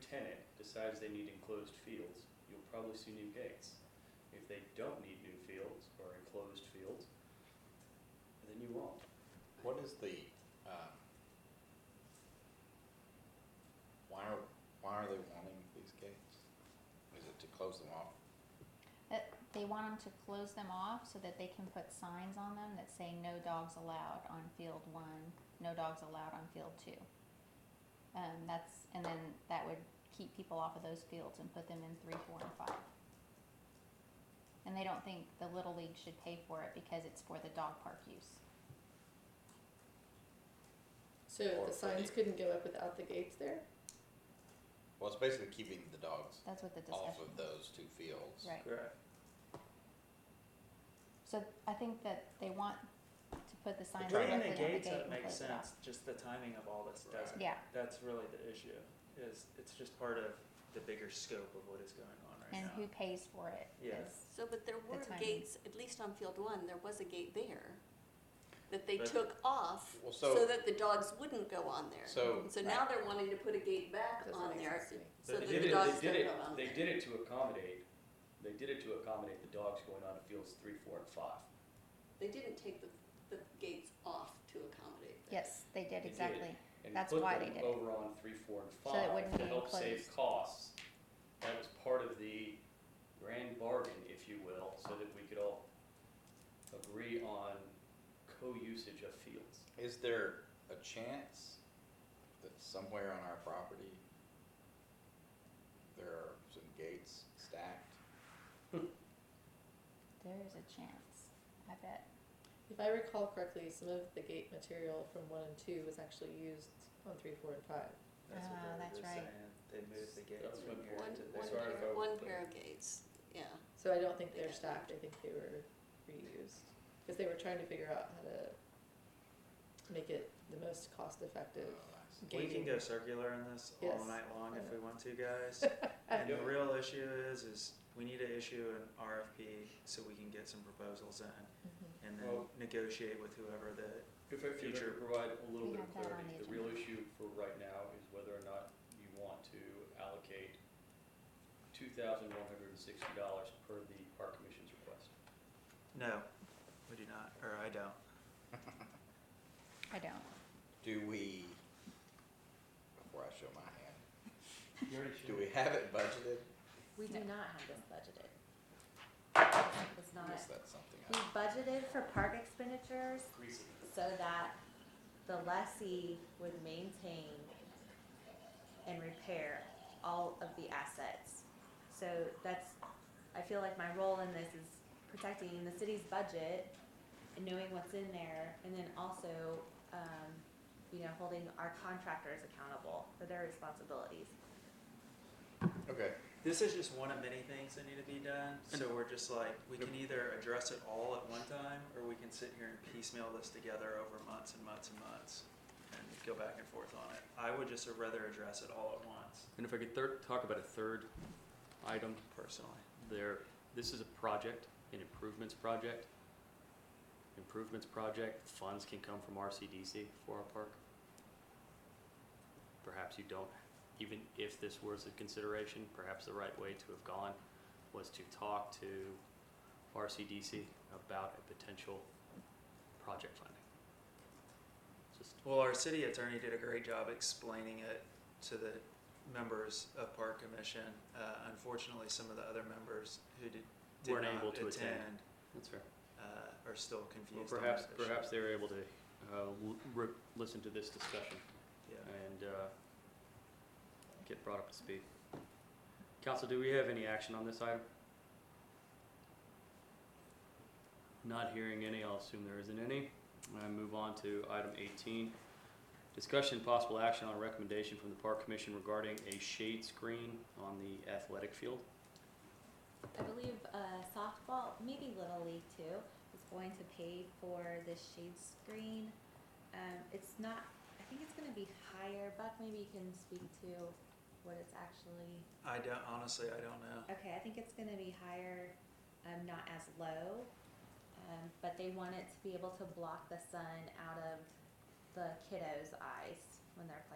tenant decides they need enclosed fields, you'll probably see new gates. If they don't need new fields or enclosed fields, then you won't. What is the, um, why are, why are they wanting these gates? Is it to close them off? They want them to close them off so that they can put signs on them that say no dogs allowed on field one, no dogs allowed on field two. Um, that's, and then that would keep people off of those fields and put them in three, four, and five. And they don't think the Little League should pay for it because it's for the dog park use. So the Or for signs the- couldn't go up without the gates there? Well, it's basically keeping the dogs That's what the off discussion of was. those two fields. Right. Correct. So I think that they want to put the signs Bringing directly on the Bringing the gates gate up and makes close it off. sense, just the timing of all this Right. doesn't. Yeah, That's really the issue, is it's just part of the bigger scope of what is going on right and now. who pays for it Yeah. is So, but there were timing. gates, at least on field one, there was a gate there that they But- took off Well, so so, that the dogs wouldn't go on there. so, And So now they're wanting to put a gate back Doesn't on make there sense to me. so They that did the it- dogs they don't did go it- on They there. did it to accommodate, they did it to accommodate the dogs going on to fields three, four, and five. They didn't take the, the gates off to accommodate that. Yes, they did, did. exactly. and That's put why them they did it. over on three, four, and So it five wouldn't to be help save enclosed. costs. That was part of the grand bargain, if you will, so that we could all agree on co-usage of fields. is there a chance that somewhere on our property, there are some gates stacked? There is a chance, I bet. If I recall correctly, some of the gate material from one and two was actually used on three, four, and five. That's what Ah, they were that's just right. saying. They moved the gates That's from what here One, to That's one why I there. pair, vote one for- pair of gates, yeah. So I don't think they're Yeah. stacked, I think they were reused. Because they were trying to figure out how to make it the most cost effective. Oh, I see. We can go circular on this all Yes. night long if Yeah. we want to, guys. I And the know. real issue is, is we need to issue an RFP so we can get some proposals in Mm-hmm. and then Well- negotiate with whoever that, If I could Future. provide a little We bit of have that on clarity, the the real issue for right now is whether or not you want to allocate two thousand one hundred and sixty dollars per the park commission's request. no, we do not, or I don't. I don't. Do we, before I show my hand, do we have it budgeted? We do No. not have this budgeted. It's I not, guess that's something we I, budgeted for park expenditures so that the lessee would maintain and repair all of the assets. So that's, I feel like my role in this is protecting the city's budget and knowing what's in there, and then also, um, you know, holding our contractors accountable for their responsibilities. okay. This is just one of many things that need to be done, so we're just like, we can either address it all at one time, or we can sit here and piecemeal this together over months and months and months, and go back and forth on it. I would just rather address it all at once, And if I could third, talk about a third item personally. there, this is a project, an improvements project. Improvements project, funds can come from RCDC for our park. Perhaps you don't, even if this was a consideration, perhaps the right way to have gone was to talk to RCDC about a potential project funding. Just Well, our city attorney did a great job explaining it to the members of Park Commission. Uh, unfortunately, some of the other members who did, did Weren't not able to attend. attend, That's fair. uh, are still Well, confused. on perhaps, that issue. perhaps they were able to, uh, l- re- listen to this discussion Yeah. and uh, get brought up to speed. Council, do we have any action on this item? Not hearing any, I'll assume there isn't any. I move on to item 18. Discussion and possible action on a recommendation from the Park Commission regarding a shade screen on the athletic field. I believe uh, softball, maybe Little League too, is going to pay for this shade screen. Um, it's not, I think it's going to be higher. Buck, maybe you can speak to what it's actually. I don't, honestly, I don't know. Okay, I think it's going to be higher, um, not as low, um, but they want it to be able to block the sun out of the kiddos' eyes when they're playing.